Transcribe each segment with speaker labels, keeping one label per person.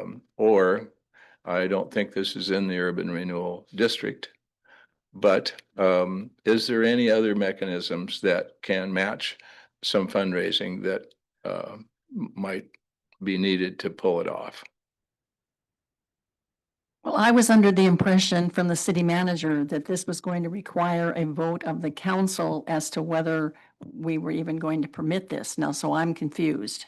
Speaker 1: um, Or I don't think this is in the urban renewal district. But um, is there any other mechanisms that can match some fundraising that um might be needed to pull it off?
Speaker 2: Well, I was under the impression from the city manager that this was going to require a vote of the council as to whether we were even going to permit this. Now, so I'm confused.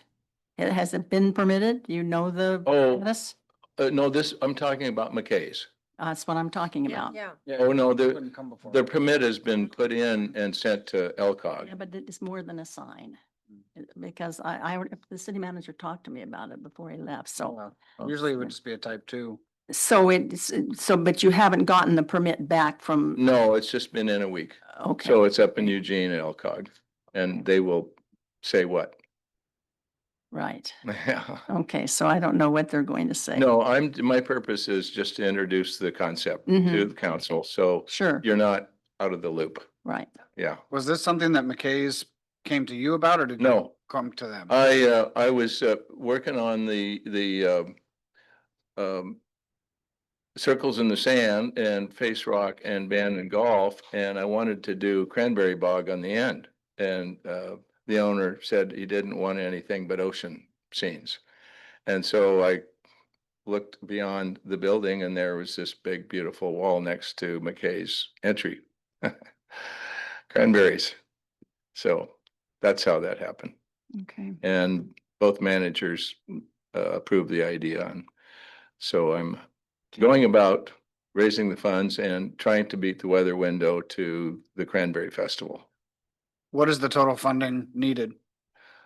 Speaker 2: It hasn't been permitted? You know the
Speaker 1: Oh,
Speaker 2: status?
Speaker 1: uh, no, this, I'm talking about McKay's.
Speaker 2: That's what I'm talking
Speaker 3: Yeah.
Speaker 2: about.
Speaker 3: Yeah,
Speaker 1: Oh, no,
Speaker 4: they
Speaker 1: the,
Speaker 4: come before.
Speaker 1: the permit has been put in and sent to LCOG.
Speaker 2: Yeah, but it's more than a sign.
Speaker 1: Mm.
Speaker 2: It- Because I, I, the city manager talked to me about it before he left, so.
Speaker 4: Well,
Speaker 1: Oh,
Speaker 4: Usually it would just be a type two.
Speaker 2: So it's, so, but you haven't gotten the permit back from,
Speaker 1: No, it's just been in a week.
Speaker 2: okay.
Speaker 1: Mm, So it's up in Eugene and LCOG and they will say what?
Speaker 2: Right. Okay, so I don't know what they're going to say.
Speaker 1: No, I'm, my purpose is just to introduce the concept to
Speaker 2: Mhm.
Speaker 1: the council. So
Speaker 2: Sure,
Speaker 1: you're not out of the loop.
Speaker 2: right.
Speaker 1: Yeah.
Speaker 4: Was this something that McKay's came to you about or did? you
Speaker 1: No,
Speaker 4: Come to them?
Speaker 1: I, uh, I was, uh, working on the, the, um, um, circles in the sand and face rock and band and golf, and I wanted to do cranberry bog on the end. And, uh, the owner said he didn't want anything but ocean scenes. And so I looked beyond the building and there was this big, beautiful wall next to McKay's entry. Cranberries. So that's how that happened.
Speaker 2: Okay.
Speaker 1: And both managers uh, approved the idea. And so I'm going about raising the funds and trying to beat the weather window to the Cranberry Festival.
Speaker 4: What is the total funding needed?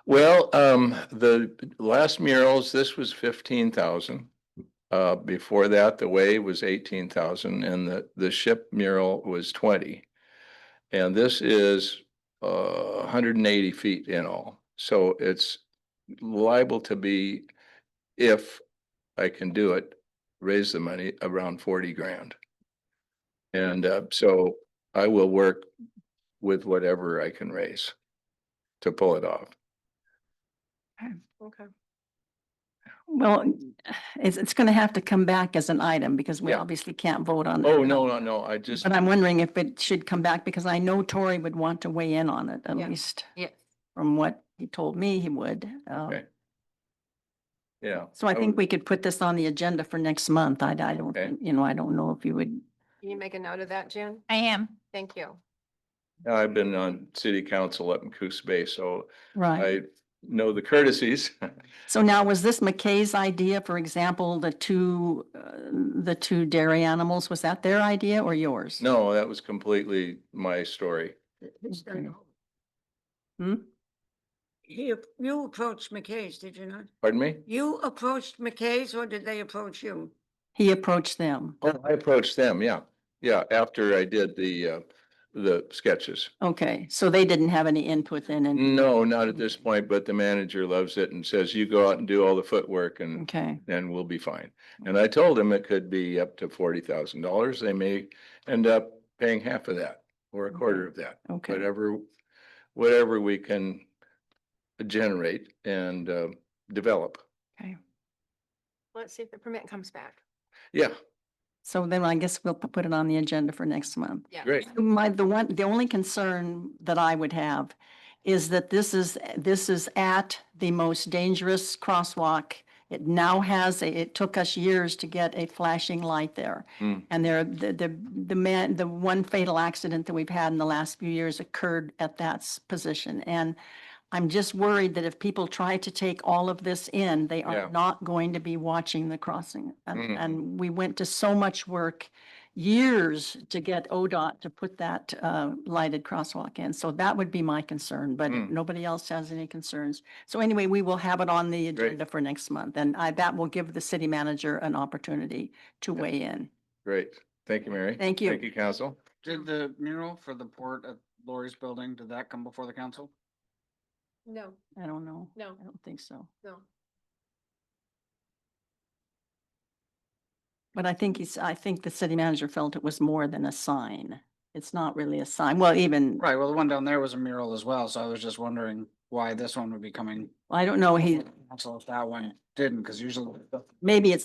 Speaker 1: Well, um, the last murals, this was fifteen thousand. Uh, before that, the wave was eighteen thousand and the, the ship mural was twenty. And this is, uh, hundred and eighty feet in all. So it's liable to be, if I can do it, raise the money around forty grand. And, uh, so I will work with whatever I can raise to pull it off.
Speaker 3: okay.
Speaker 2: Well, it's, it's going to have to come back as an item because we
Speaker 1: Yeah.
Speaker 2: obviously can't vote on.
Speaker 1: Oh,
Speaker 2: it.
Speaker 1: no, no, no, I just,
Speaker 2: But I'm wondering if it should come back because I know Tori would want to weigh in on it, at
Speaker 3: Yeah.
Speaker 2: least
Speaker 3: Yes.
Speaker 2: from what he told me he would. Uh,
Speaker 1: Okay. yeah,
Speaker 2: So I
Speaker 1: Oh.
Speaker 2: think we could put this on the agenda for next month. I, I don't,
Speaker 1: Okay.
Speaker 2: think- you know, I don't know if you would,
Speaker 3: Can you make a note of that, Jen?
Speaker 5: I am.
Speaker 3: Thank you.
Speaker 1: I've been on city council up in Coos Bay, so
Speaker 2: right?
Speaker 1: I know the courtesies.
Speaker 2: So now was this McKay's idea, for example, the two, uh, the two dairy animals, was that their idea or yours?
Speaker 1: No, that was completely my story.
Speaker 2: Okay.
Speaker 6: He, ap- you approached McKay's, did you not?
Speaker 1: Pardon me?
Speaker 6: You approached McKay's or did they approach you?
Speaker 2: He approached them.
Speaker 1: Oh, I approached them, yeah, yeah, after I did the, uh, the sketches.
Speaker 2: Okay, so they didn't have any input then and,
Speaker 1: No, not at this point, but the manager loves it and says, you go out and do all the footwork and
Speaker 2: okay,
Speaker 1: and we'll be fine. And I told them it could be up to forty thousand dollars. They may end up paying half of that or a
Speaker 2: Okay.
Speaker 1: quarter of that,
Speaker 2: okay.
Speaker 1: whatever, whatever we can generate and uh, develop.
Speaker 3: Let's see if the permit comes back.
Speaker 1: Yeah,
Speaker 2: So then I guess we'll p- put it on the agenda for next month.
Speaker 3: Yeah.
Speaker 1: great.
Speaker 2: My, the one, the only concern that I would have is that this is, this is at the most dangerous crosswalk. It now has, a it took us years to get a flashing light there.
Speaker 1: Hmm.
Speaker 2: And there, the, the, the man, the one fatal accident that we've had in the last few years occurred at that s- position. And I'm just worried that if people try to take all of this in, they
Speaker 1: Yeah.
Speaker 2: are not going to be watching the crossing. And,
Speaker 1: Mhm.
Speaker 2: and we went to so much work, years to get ODOT to put that, uh, lighted crosswalk in. So that would be my concern, but
Speaker 1: Mm.
Speaker 2: nobody else has any concerns. So anyway, we will have it on the
Speaker 1: Great.
Speaker 2: agenda for next month and I, that will give the city manager an opportunity to
Speaker 1: Yeah.
Speaker 2: weigh in.
Speaker 1: Great. Thank you, Mary.
Speaker 2: Thank you.
Speaker 1: Thank you, council.
Speaker 4: Did the mural for the port at Lori's building, did that come before the council?
Speaker 3: No,
Speaker 2: I don't know.
Speaker 3: no,
Speaker 2: I don't think so.
Speaker 3: no.
Speaker 2: But I think he's, I think the city manager felt it was more than a sign. It's not really a sign. Well, even,
Speaker 4: Right, well, the one down there was a mural as well, so I was just wondering why this one would be coming.
Speaker 2: I don't know, he,
Speaker 4: before the Council if that one didn't, because usually the
Speaker 2: maybe it's